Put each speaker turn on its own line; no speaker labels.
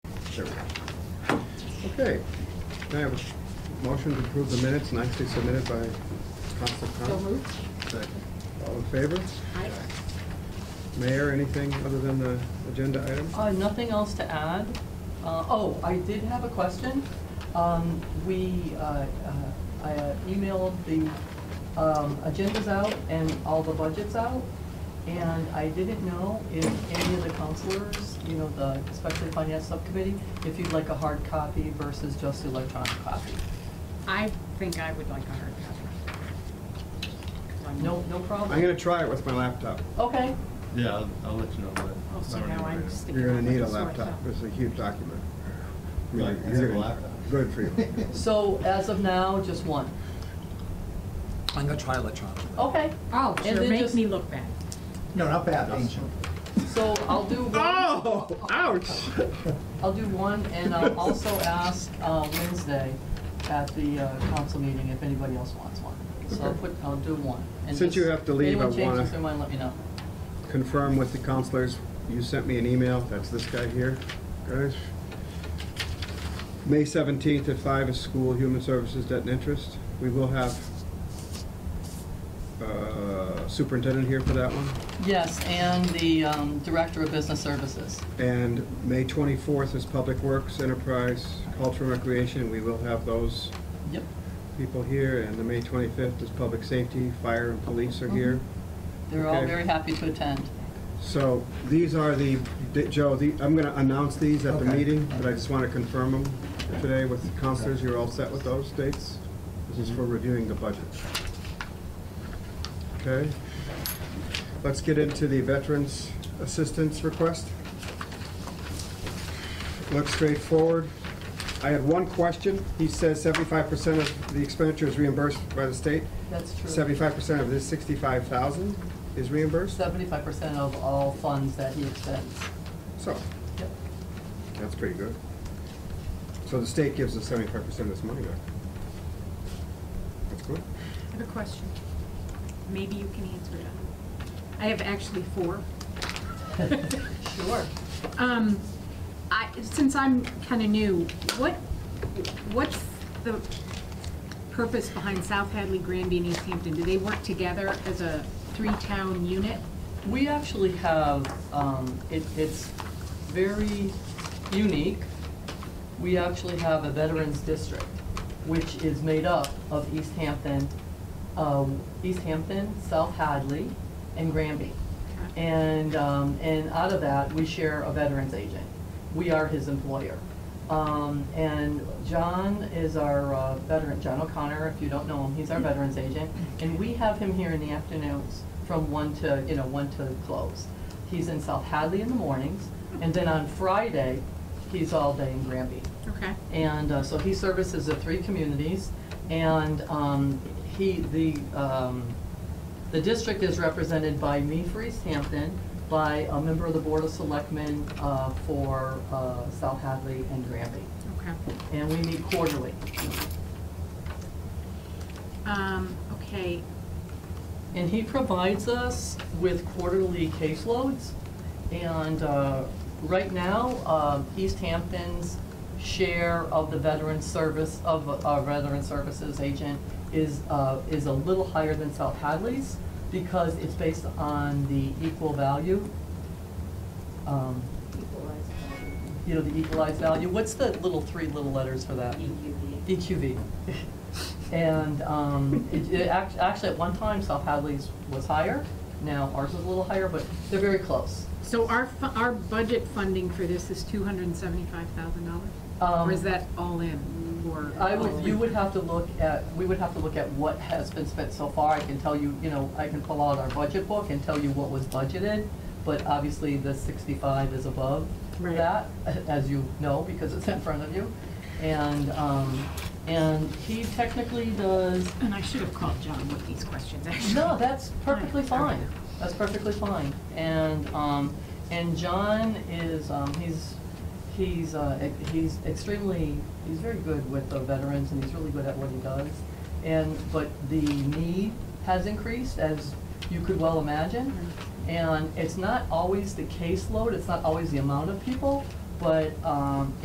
sir. Okay, Can I have a motion to approve the minutes nicely submitted by Council
So
Con.
moved.
All in favor?
Aye.
Mayor, anything other than the agenda item?
Uh, Nothing else to add. Uh, Oh, I did have a question. Um, We, uh, uh, I uh, emailed the um, agendas out and all the budgets out, and I didn't know if any of the counselors, you know, the, especially finance subcommittee, if you'd like a hard copy versus just electronic copy.
I think I would like a hard copy.
No, no problem?
I'm gonna try it with my laptop.
Okay,
Yeah, I'll, I'll let you know when.
Oh, so now I'm sticking.
You're gonna
out
need a
like sore
laptop,
thumb.
it's a huge document. I mean,
Right, I
you're
have a
gonna-
laptop.
Good for you.
so as of now, just one.
I'm gonna try electronically.
Okay,
Oh,
And
sure,
then
make
just-
me look bad.
No, not bad, ancient.
so I'll do one.
Oh, ouch!
I'll do one, and I'll also ask uh, Wednesday at the uh, council meeting if anybody else wants one. So I'll
Okay.
put, I'll do one. and
Since you
just-
have to leave, I
Anyone
wanna-
changes their mind, let me know.
Confirm with the counselors, you sent me an email, that's this guy here, guys. May seventeenth at five is school, human services, debt and interest. We will have uh, superintendent here for that one.
Yes, and the um, Director of Business Services.
And May twenty-fourth is public works, enterprise, cultural recreation, we will have those
Yep.
people here. And the May twenty-fifth is public safety, fire and police are here.
They're all
Okay.
very happy to attend.
So these are the, di- Joe, the- I'm going to announce these at the
Okay.
meeting, but I just want to confirm them today with the counselors. You're all set with those dates? This is for reviewing the budget. Okay? Let's get into the veterans assistance request. Looks straightforward. I had one question. He says 75% of the expenditure is reimbursed by the state.
That's true.
75% of this 65,000 is reimbursed?
Seventy-five percent of all funds that he expends.
So,
Yep.
that's pretty good. So the state gives us seventy-five percent of this money back. That's good.
I have a question. Maybe you can answer it. I have actually four.
Sure.
Um, I, since I'm kind of new, what, what's the purpose behind South Hadley, Granby, and East Hampton? Do they work together as a three-town unit?
We actually have, um, it, it's very unique. We actually have a veterans district, which is made up of East Hampton, um, East Hampton, South Hadley, and Granby. And, um, and out of that, we share a veterans agent. We are his employer. Um, and John is our uh, veteran, John O'Connor, if you don't know him, he's our veterans agent. And we have him here in the afternoons from one to, you know, one to close. He's in South Hadley in the mornings, and then on Friday, he's all day in Granby.
Okay.
And uh, so he services the three communities, and um, he, the, um, the district is represented by me for East Hampton, by a member of the Board of Selectmen uh, for uh, South Hadley and Granby.
Okay.
And we meet quarterly.
Um, okay,
And he provides us with quarterly caseloads. And uh, right now, um, East Hampton's share of the veteran service, of a veteran services agent is, uh, is a little higher than South Hadley's because it's based on the equal value. um, You know, the equalized value. What's the little three little letters for that? E EQV. And um, it, it act- actually, at one time, South Hadley's was higher, now ours is a little higher, but they're very close.
so our, fu- our budget funding for this is two hundred and seventy-five thousand dollars? Or is
Um,
that all in, or?
I would, you would have to look at, we would have to look at what has been spent so far. I can tell you, you know, I can pull out our budget book and tell you what was budgeted, but obviously the sixty-five is above
Right.
that, as you know, because it's in front of you. And, um, and he technically does
And I should have called John with these questions, actually.
No, that's perfectly
Fine, all right.
fine. That's perfectly fine. And, um, and John is, um, he's, he's, uh, ex- he's extremely, he's very good with the veterans and he's really good at what he does. And, but the need has increased, as you could well imagine. And it's not always the caseload, it's not always the amount of people, but, um,